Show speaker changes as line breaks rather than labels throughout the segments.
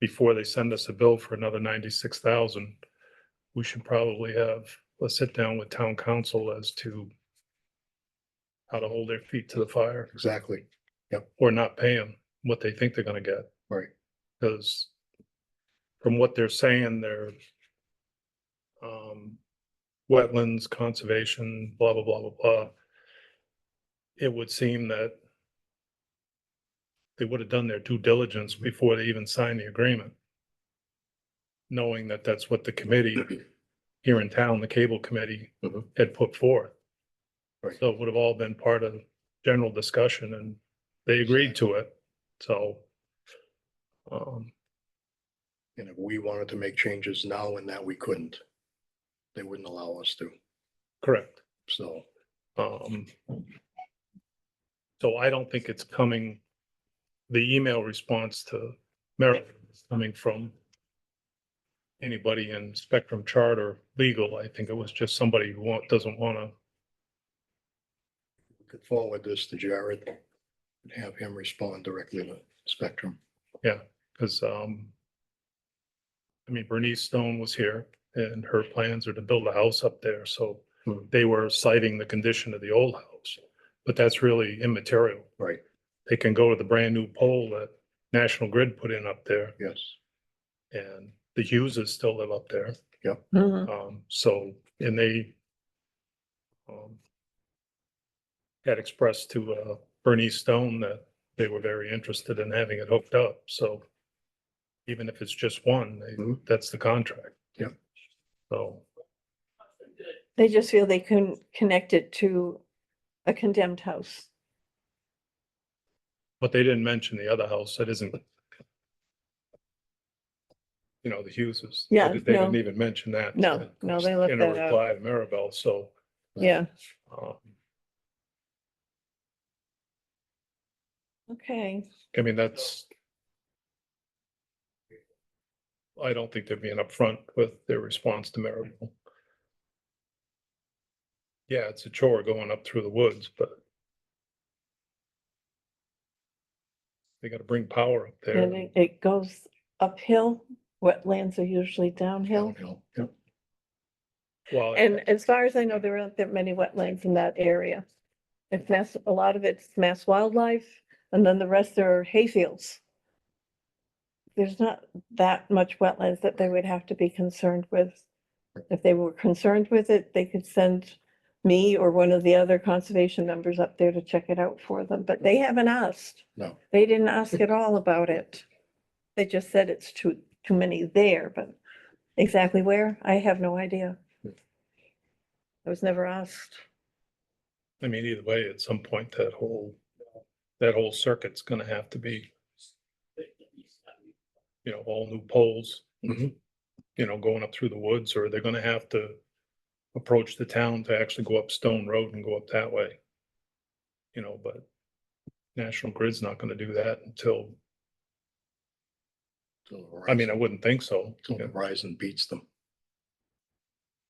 before they send us a bill for another ninety-six thousand, we should probably have a sit down with town council as to how to hold their feet to the fire
Exactly.
or not pay them what they think they're gonna get.
Right.
Cause from what they're saying, they're um, wetlands, conservation, blah, blah, blah, blah, blah. It would seem that they would have done their due diligence before they even signed the agreement. Knowing that that's what the committee here in town, the cable committee
Mhm.
had put forth.
Right.
So it would have all been part of general discussion and they agreed to it, so. Um,
And if we wanted to make changes now and that we couldn't, they wouldn't allow us to.
correct,
So,
um.
Hmm.
So I don't think it's coming, the email response to Merrill is coming from. Anybody in Spectrum Chart or legal, I think it was just somebody who want, doesn't wanna,
we could forward this to Jared and have him respond directly to Spectrum.
cause um. I mean Bernice Stone was here and her plans are to build a house up there, so
Hmm.
they were citing the condition of the old house. But that's really immaterial.
Right,
they can go to the brand new pole that National Grid put in up there
yes.
and the Hugheses still live up there.
Mhm.
Um, so, and they um, had expressed to uh, Bernie Stone that they were very interested in having it hooked up. So even if it's just one, they-
Mm-hmm.
Mhm.
that's the contract.
Yeah.
So,
They just feel they couldn't connect it to a condemned house.
but they didn't mention the other house that isn't you know, the Hugheses. They
Yeah,
didn't- They didn't
no.
even mention that.
No, no, they left
in a
that out.
reply to Maribel, so.
Yeah,
um,
okay.
I mean, that's. I don't think they're being upfront with their response to Maribel. Yeah, it's a chore going up through the woods, but. They gotta bring power up there.
And it- it goes uphill. Wetlands are usually downhill.
Downhill. Yep.
Well, I-
And as far as I know, there aren't that many wetlands in that area. It's mass, a lot of it's mass wildlife, and then the rest are hayfields. There's not that much wetlands that they would have to be concerned with. If they were concerned with it, they could send me or one of the other conservation members up there to check it out for them, but they haven't asked.
No,
They didn't ask at all about it. They just said it's too, too many there, but exactly where, I have no idea. I was never asked.
I mean, either way, at some point, that whole, that whole circuit's gonna have to be. You know, all new poles.
Mhm.
You know, going up through the woods, or they're gonna have to approach the town to actually go up Stone Road and go up that way. You know, but National Grid's not gonna do that until,
till the
I mean, I
horizon-
wouldn't think so.
till the Verizon beats them.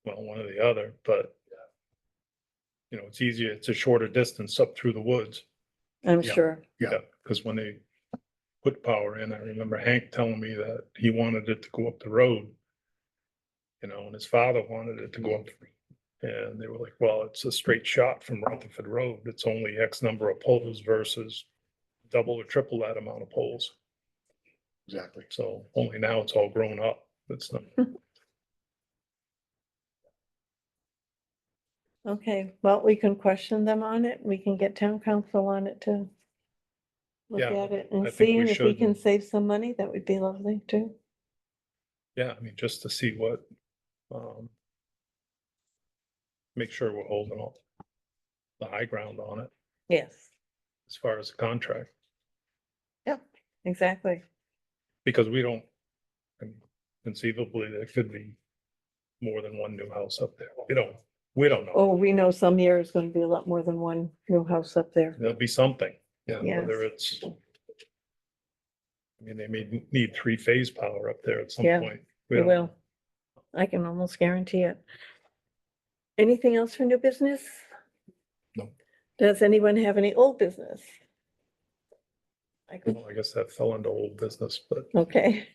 well, one or the other, but you know, it's easier, it's a shorter distance up through the woods.
I'm
Yeah.
sure.
Yeah.
Because when they put power in, I remember Hank telling me that he wanted it to go up the road. You know, and his father wanted it to go up. the- And they were like, well, it's a straight shot from Rutherford Road. It's only X number of poles versus double or triple that amount of poles.
Exactly.
So only now it's all grown up. It's not,
Okay, well, we can question them on it. We can get town council on it to look
Yeah,
at it
I
and
think
see
we
and if we
should.
can save some money, that would be lovely too.
yeah, I mean, just to see what, um, make sure we're holding all the high ground on it
Yes,
as far as the contract.
exactly.
Because we don't, and conceivably, there could be more than one new house up there. We don't, we don't know.
Oh, we know some year is gonna be a lot more than one new house up there.
There'll be something, yeah,
Yes.
whether it's. I mean, they may need three phase power up there at some
Yeah,
point. We
It
don't-
will. I can almost guarantee it. Anything else for new business?
No.
Does anyone have any old business? I could-
Well, I guess that fell into old business, but
Okay.